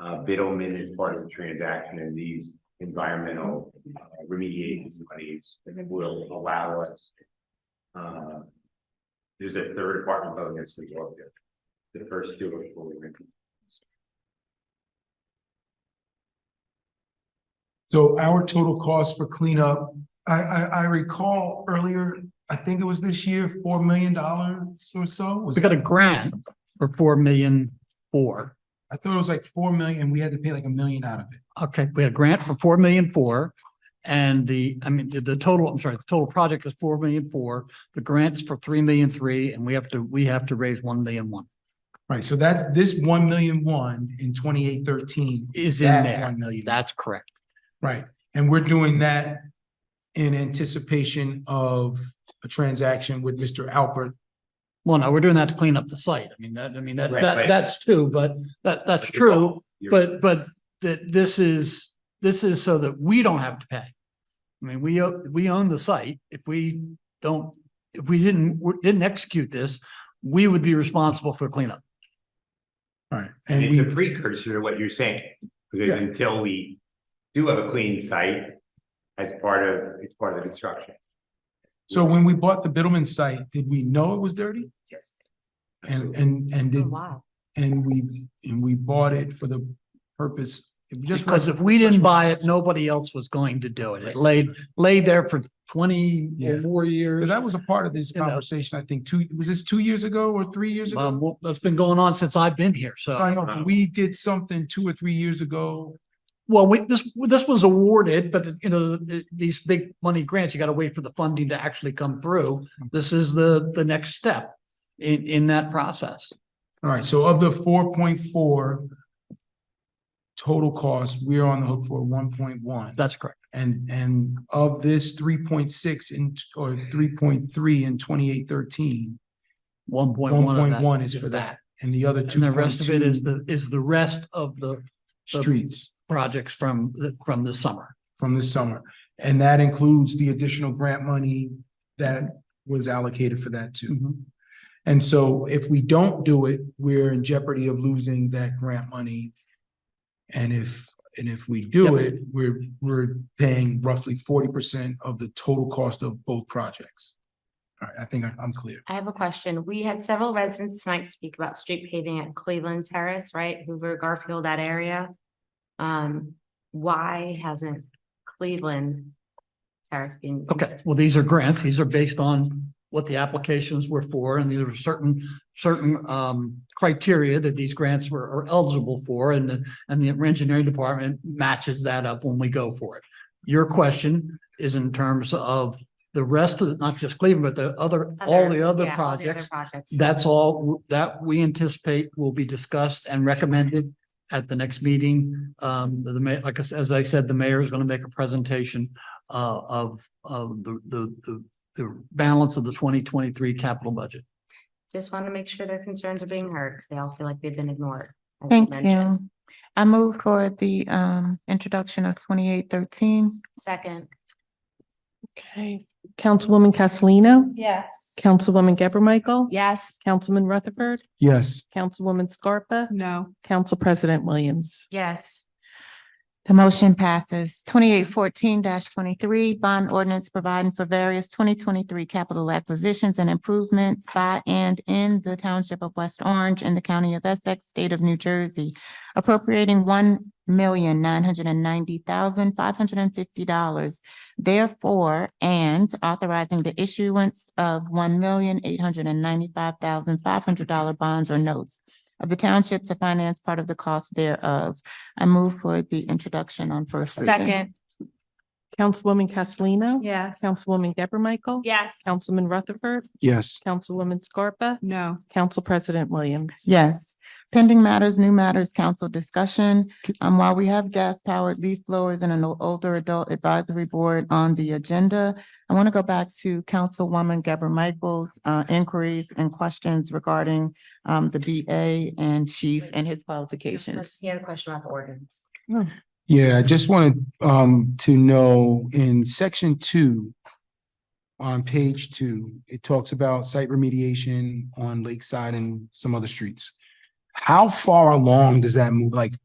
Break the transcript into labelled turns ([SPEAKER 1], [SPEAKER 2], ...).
[SPEAKER 1] Uh, bid omen is part of the transaction and these environmental uh, remediation monies will allow us. Uh. There's a third apartment building that's going to go up there. The first two are fully rented.
[SPEAKER 2] So our total cost for cleanup, I, I, I recall earlier, I think it was this year, four million dollars or so. Was-
[SPEAKER 3] We got a grant for four million four.
[SPEAKER 2] I thought it was like four million and we had to pay like a million out of it.
[SPEAKER 3] Okay, we had a grant for four million four. And the, I mean, the, the total, I'm sorry, the total project is four million four. The grant's for three million three, and we have to, we have to raise one million one.
[SPEAKER 2] Right, so that's this one million one in twenty-eight thirteen.
[SPEAKER 3] Is in there.
[SPEAKER 2] One million,
[SPEAKER 3] That's correct.
[SPEAKER 2] right, and we're doing that in anticipation of a transaction with Mr. Alpert.
[SPEAKER 3] Well, no, we're doing that to clean up the site. I mean, that, I mean, that,
[SPEAKER 1] Right,
[SPEAKER 3] that,
[SPEAKER 1] right.
[SPEAKER 3] that's true, but that, that's
[SPEAKER 1] But you're-
[SPEAKER 3] true.
[SPEAKER 1] You're-
[SPEAKER 3] But, but that this is, this is so that we don't have to pay. I mean, we, o- we own the site. If we don't, if we didn't, we didn't execute this, we would be responsible for cleanup.
[SPEAKER 2] Right.
[SPEAKER 1] And
[SPEAKER 2] And
[SPEAKER 1] it's a
[SPEAKER 2] we,
[SPEAKER 1] precursor to what you're saying, because until we do have a clean site. As part of, it's part of the construction.
[SPEAKER 2] so when we bought the Biddleman site, did we know it was dirty?
[SPEAKER 1] Yes.
[SPEAKER 2] And, and, and did, and we, and we bought it for the purpose, just
[SPEAKER 3] Because if we didn't buy it, nobody else was going to do it. It laid, laid there for twenty or
[SPEAKER 2] Yeah.
[SPEAKER 3] more
[SPEAKER 2] Because
[SPEAKER 3] years.
[SPEAKER 2] that was a part of this
[SPEAKER 3] You know.
[SPEAKER 2] conversation, I think, two, was this two years ago or three years ago?
[SPEAKER 3] Um, well, that's been going on since I've been here, so.
[SPEAKER 2] I know, but we did something two or three years ago.
[SPEAKER 3] Well, we, this, this was awarded, but you know, th- these big money grants, you gotta wait for the funding to actually come through.
[SPEAKER 2] Mm-hmm.
[SPEAKER 3] This is the, the next step in, in that process.
[SPEAKER 2] All right, so of the four point four total cost, we are on the hook for one point one.
[SPEAKER 3] That's correct.
[SPEAKER 2] And, and of this three point six in, or three point three in twenty-eight thirteen,
[SPEAKER 3] One point
[SPEAKER 2] one
[SPEAKER 3] one of
[SPEAKER 2] point one
[SPEAKER 3] that
[SPEAKER 2] is
[SPEAKER 3] is
[SPEAKER 2] for that.
[SPEAKER 3] that.
[SPEAKER 2] And the other two
[SPEAKER 3] And the
[SPEAKER 2] point
[SPEAKER 3] rest of it
[SPEAKER 2] two
[SPEAKER 3] is the, is the rest of the
[SPEAKER 2] streets
[SPEAKER 3] projects from, the from the summer.
[SPEAKER 2] from this summer. And that includes the additional grant money that was allocated for that too. And so if we don't do it, we're in jeopardy of losing that grant money. And if, and if we do
[SPEAKER 3] Yep.
[SPEAKER 2] it, we're, we're paying roughly forty percent of the total cost of both projects. All right, I think I- I'm clear.
[SPEAKER 4] I have a question. We had several residents tonight speak about street paving at Cleveland Terrace, right? Hoover, Garfield, that area. Um, why hasn't Cleveland Terrace been?
[SPEAKER 3] Okay, well, these are grants. These are based on what the applications were for, and there were certain, certain um criteria that these grants were are eligible for, and the, and the engineering department matches that up when we go for it. Your question is in terms of the rest of, the- not just Cleveland, but the other, all the other
[SPEAKER 4] yeah, all the
[SPEAKER 3] projects.
[SPEAKER 4] Projects.
[SPEAKER 3] That's all that we anticipate will be discussed and recommended at the next meeting. Um, the, ma- like, I s- as I said, the mayor is going to make a presentation uh, of, of the, the, the, the balance of the twenty twenty-three capital budget.
[SPEAKER 4] Just want to make sure their concerns are being heard because they all feel like they've been ignored. as
[SPEAKER 5] Thank
[SPEAKER 4] mentioned.
[SPEAKER 5] you. I move for the um introduction of twenty-eight thirteen.
[SPEAKER 4] Second,
[SPEAKER 6] Okay, Councilwoman Castellino,
[SPEAKER 7] Yes.
[SPEAKER 6] Councilwoman Gabor Michael.
[SPEAKER 4] yes,
[SPEAKER 6] Councilman Rutherford,
[SPEAKER 2] Yes.
[SPEAKER 6] Councilwoman Scarpa,
[SPEAKER 7] No.
[SPEAKER 6] Council President Williams.
[SPEAKER 5] Yes. The motion passes. Twenty-eight fourteen twenty-three, bond ordinance providing for various twenty twenty-three capital acquisitions and improvements by and in the township of West Orange in the county of Essex, state of New Jersey, appropriating one million nine hundred and ninety thousand five hundred and fifty dollars. Therefore, and authorizing the issuance of one million eight hundred and ninety-five thousand five hundred dollar bonds or notes of the township to finance part of the cost thereof. I move for the introduction on first reading.
[SPEAKER 4] second,
[SPEAKER 6] Councilwoman Castellino.
[SPEAKER 7] Yes.
[SPEAKER 6] Councilwoman Gabor Michael.
[SPEAKER 4] yes,
[SPEAKER 6] Councilman Rutherford,
[SPEAKER 2] Yes.
[SPEAKER 6] Councilwoman Scarpa,
[SPEAKER 7] No.
[SPEAKER 6] Council President Williams.
[SPEAKER 5] Yes. Pending matters, new matters, council discussion. Um, while we have gas powered leaf blowers and an o- older adult advisory board on the agenda, I want to go back to Councilwoman Gabor Michaels' uh, inquiries and questions regarding um, the BA and chief and his qualifications.
[SPEAKER 4] he had a question about the ordinance.
[SPEAKER 2] Yeah, I just wanted um to know in section two. On page two, it talks about site remediation on Lakeside and some other streets. How far along does that move? Like,